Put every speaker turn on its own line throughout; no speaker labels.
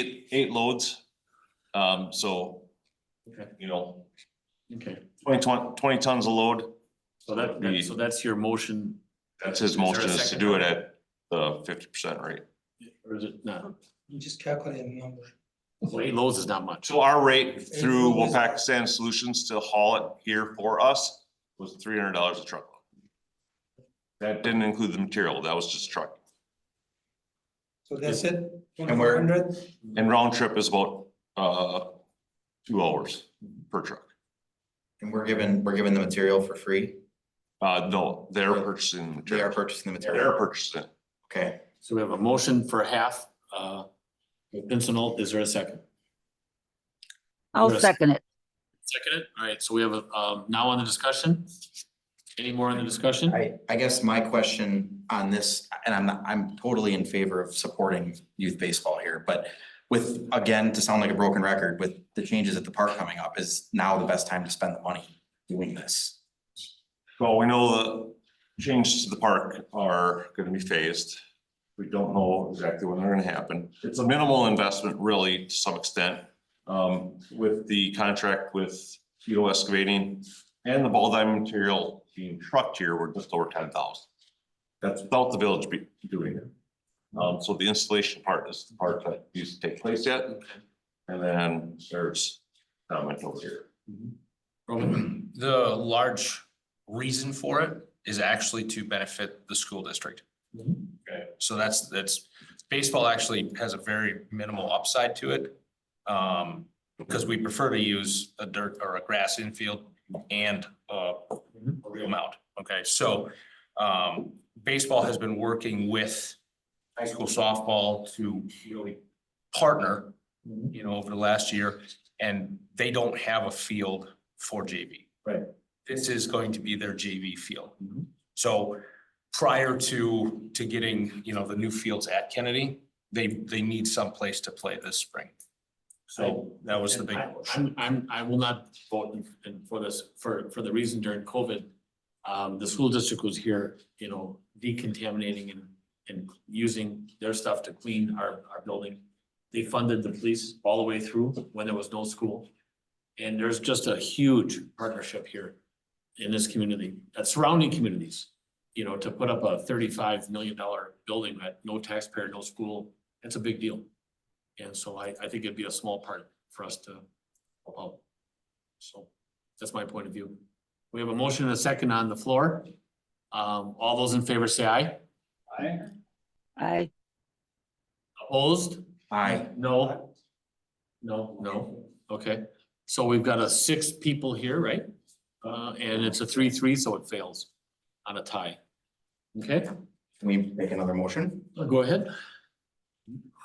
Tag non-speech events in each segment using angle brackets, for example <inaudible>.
eight loads. Um, so,
Okay.
you know,
Okay,
20 ton- 20 tons a load,
so that, that- so that's your motion,
that's his
Is there a
motion is to
second?
do it at the fifty percent rate.
or is it not?
You just calculate a number.
Well, eight loads is not much.
So our rate through Wolfpack Sand Solutions to haul it here for us was three hundred dollars a truckload. That didn't include the material, that was just truck.
So that's it?
And we're-
1,400?
And round trip is about, uh, two hours per truck.
And we're given, we're given the material for free.
Uh, no, they're purchasing the
They are
material.
purchasing the
They're
material.
purchasing. it.
Okay,
So we have a motion for half, uh, with Pincinel, is there a second?
I'll
Yes.
second it.
Second it, all right, so we have, a um, now on the discussion? Any more on the discussion?
I, I guess my question on this, and I'm, not- I'm totally in favor of supporting youth baseball here, but with, again, to sound like a broken record, with the changes at the park coming up, is now the best time to spend the money doing this?
Well, we know the changes to the park are gonna be phased. We don't know exactly when they're gonna happen. It's a minimal investment really to some extent. Um, with the contract with Tito Excavating and the ball diamond material being trucked here, we're just over ten thousand. That's without the village be doing it. Um, so the installation part is the part that needs to take place yet. And then there's comment over here.
Roman,
<clears throat> The large reason for it is actually to benefit the school district.
Okay.
So that's, that's, baseball actually has a very minimal upside to it. Um, because we prefer to use a dirt or a grass infield and uh, a real mound. Okay, so um, baseball has been working with high school softball to really partner, you know, over the last year. And they don't have a field for JV.
Right.
This is going to be their JV field.
Mhm.
So prior to, to getting, you know, the new fields at Kennedy, they, they need someplace to play this spring. So that was the big
I-
push.
I'm, I'm, I will not vote in- in for this, for, for the reason during COVID. Um, the school district was here, you know, decontaminating and, and using their stuff to clean our, our building. They funded the police all the way through when there was no school. And there's just a huge partnership here in this community, uh, surrounding communities. You know, to put up a thirty-five million dollar building at no taxpayer, no school, that's a big deal. And so I, I think it'd be a small part for us to help out. So that's my point of view. We have a motion and a second on the floor. Um, all those in favor say aye. Aye.
I,
Opposed?
I,
No? No, no, okay. So we've got a six people here, right? Uh, and it's a three-three, so it fails on a tie. Okay,
can we make another motion?
go ahead.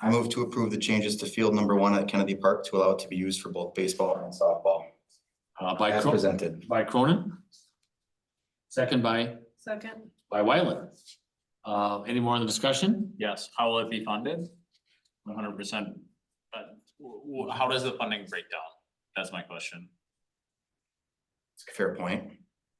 I move to approve the changes to field number one at Kennedy Park to allow it to be used for both baseball and softball.
Uh, by
As
Cronin,
presented.
by Cronin. Second by
Second,
by Wyland. Uh, any more on the discussion?
Yes, how will it be funded? One hundred percent, but wh- wh- how does the funding break down? That's my question.
Fair point.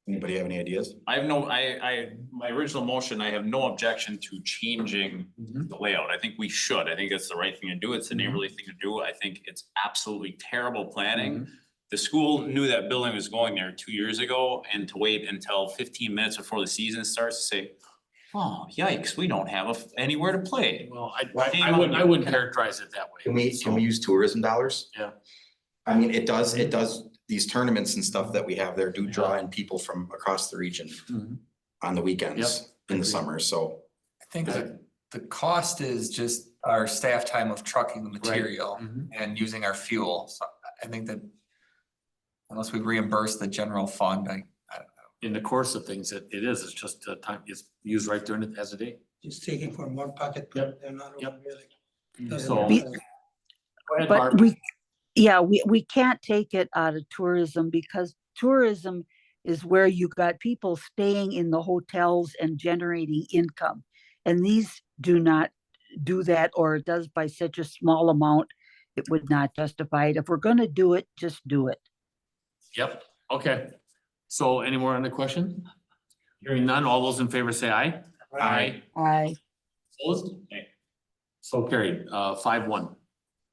Anybody have any ideas?
I have no, I, I, my original motion, I have no objection to changing the layout. I think we should. I think it's the right thing to do. It's the neighborly thing to do. I think it's absolutely terrible planning.
Mm-hmm.
The school knew that building was going there two years ago and to wait until fifteen minutes before the season starts to say, oh, yikes, we don't have a f- anywhere to play.
Well, I, I I wouldn't, I wouldn't characterize it that way.
Can we, can we use tourism dollars?
Yeah.
I mean, it does, it does, these tournaments and stuff that we have there do draw in people from across the region
Mhm.
on the weekends in the
Agreed.
summer, so.
I think the, the cost is just our staff time of trucking the material
Mhm.
and using our fuel. So I think that unless we reimburse the general fund, I,
In the course of things, it, it is, it's just the time, it's used right during it as a day.
Just taking from one pocket, but they're not
Yep.
all really. doesn't
So.
matter.
Go ahead, Barb.
but we, yeah, we, we can't take it out of tourism because tourism is where you got people staying in the hotels and generating income. And these do not do that, or it does by such a small amount, it would not justify it. If we're gonna do it, just do it.
Yep, okay. So any more on the question? Hearing none, all those in favor say aye.
Right.
I,
Opposed?
Aye.
So carried, uh, five one.